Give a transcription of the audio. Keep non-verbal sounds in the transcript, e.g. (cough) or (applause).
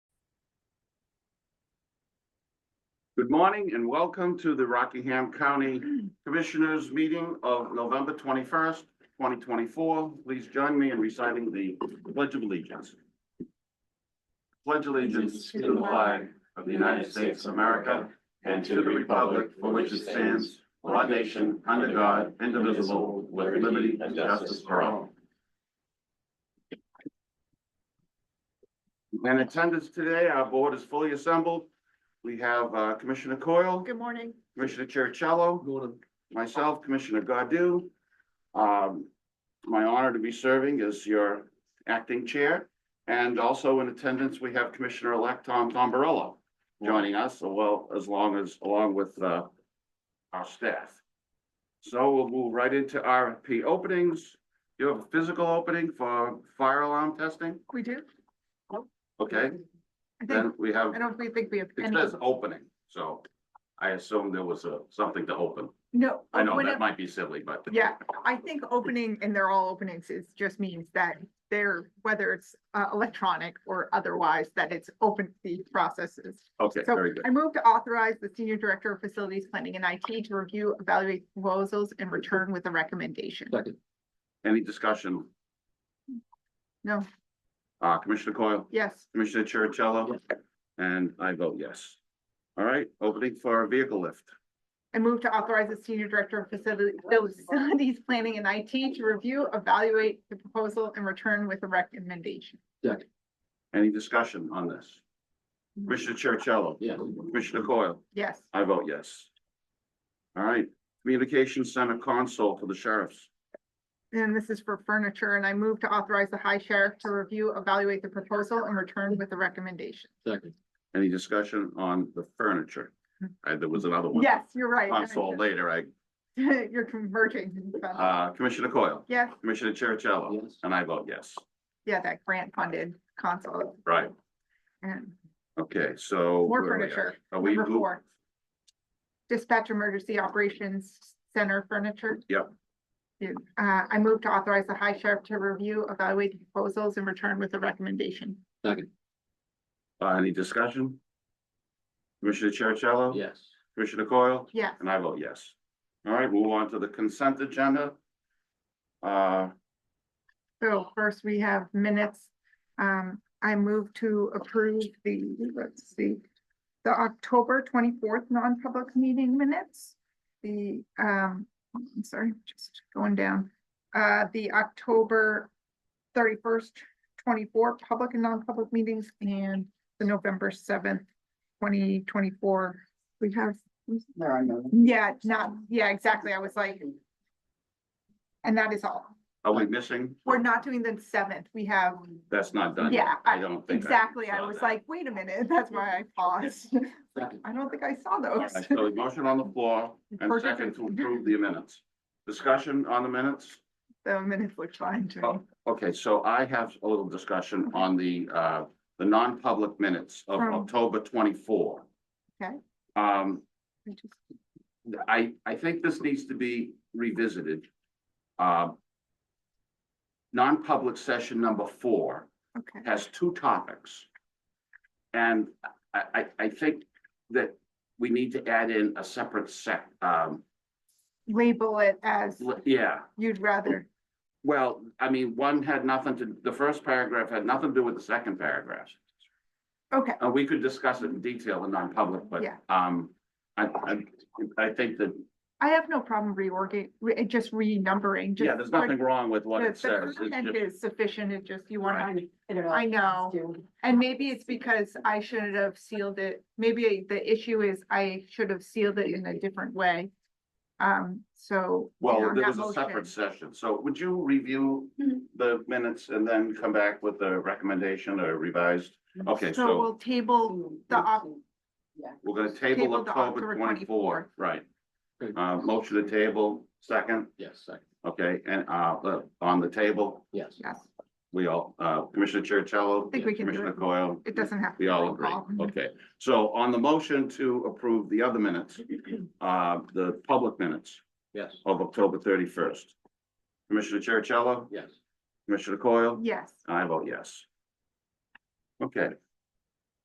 Good morning and welcome to the Rockingham County Commissioners Meeting of November twenty-first, twenty twenty-four. Please join me in reciting the Pledge of Allegiance. Pledge allegiance to the flag of the United States of America and to the republic for which it stands, one nation, under God, indivisible, with liberty and justice for all. In attendance today, our board is fully assembled. We have uh, Commissioner Coyle, Good morning. Commissioner Cherichello, myself, Commissioner Godu. Um, my honor to be serving as your acting chair. And also in attendance, we have Commissioner-elect Tom Tombarello joining us, well, as long as, along with, uh, our staff. So we'll move right into RFP openings. You have a physical opening for fire alarm testing, We do? okay? I think, Then we have, I don't really think we have it any. says opening, so I assume there was a, something to open. No. I know that whenever- might be silly, but. Yeah, I think opening, and they're all openings, it just means that they're, whether it's uh, electronic or otherwise, that it's open to these processes. Okay, So very good. I move to authorize the Senior Director of Facilities Planning and IT to review, evaluate proposals and return with a recommendation. Second. Any discussion? No, Uh, Commissioner Coyle, yes, Commissioner Cherichello? And I vote yes. All right, opening for a vehicle lift. I move to authorize the Senior Director of Facility- Facilities Planning and IT to review, evaluate the proposal and return with a recommendation. Any discussion on this? Mm-hmm. Commissioner Cherichello? Yeah. Commissioner Coyle? Yes. I vote yes. All right, communications center console for the sheriffs. And this is for furniture, and I move to authorize the high sheriff to review, evaluate the proposal and return with a recommendation. Second. Any discussion on the furniture? Uh, there was another one. Yes, you're right. (laughs) Console later, I, You're converging. uh, Commissioner Coyle, Yes, Commissioner Cherichello? Yes. And I vote yes. yeah, that grant funded console Right, Oh, and okay, so. more where are we at? furniture. Are we, Number move- four. Dispatch Emergency Operations Center Furniture. Yep. Yeah, Uh, I move to authorize the high sheriff to review, evaluate the proposals and return with a recommendation. Second. Uh, any discussion? Commissioner Cherichello? Yes. Commissioner Coyle? Yes. And I vote yes. All right, move on to the consent agenda. Uh, So first we have minutes. Um, I move to approve the, let's see, the October twenty-fourth non-public meeting minutes. The, um, I'm sorry, just going down, uh, the October thirty-first, twenty-four public and non-public meetings and the November seventh, twenty twenty-four. We have, There are no. yeah, not, yeah, exactly. I was like, and that is all. are we missing? We're not doing the seventh. We have That's not done. yet. Yeah, I I- don't think. Exactly, I saw was that. like, wait a minute, (laughs) that's why I paused. (laughs) Second. I don't think I saw those. All right, So a motion on the floor and Perfect. second to approve the minutes. Discussion on the minutes? (laughs) The minutes looked fine to me. Oh, Okay, so I have a little discussion on the, uh, the non-public minutes of From- October twenty-four. Okay. Um, I just- I, I think this needs to be revisited. Um, Non-public session number four Okay, has two topics. And I, I, I think that we need to add in a separate sec, um, label it as li- yeah. you'd rather, Well, I mean, one had nothing to, the first paragraph had nothing to do with the second paragraph. okay, Uh, we could discuss it in detail in non-public, but, Yeah. um, I, I, I think that, I have no problem reorgan, re- eh, just renumbering. yeah, just there's put- nothing wrong with what The it the says. It's content just- is sufficient, it just, you wanna, don't I know. and maybe it's because I should have sealed it, maybe the issue is I should have sealed it in a different way. Um, so. you know, Well, there was that a motion- Mm-hmm. separate session, so would you review the minutes and then come back with a recommendation or revised? Okay, Mm-hmm. So so we'll table the op- we're gonna table table the October October twenty-four, right? Good. Uh, motion to table, second, Yes, second. okay, and, uh, uh, on the table, Yes. Yes, we all, uh, Commissioner Chercello. I think we can do Commissioner it. Coyle. It doesn't have. to We be all roll agree, call. okay. So on the motion to approve the other minutes, uh, the public minutes Yes. of October thirty-first. Commissioner Chercello, Yes. Commissioner Coyle, Yes, I vote yes. Okay,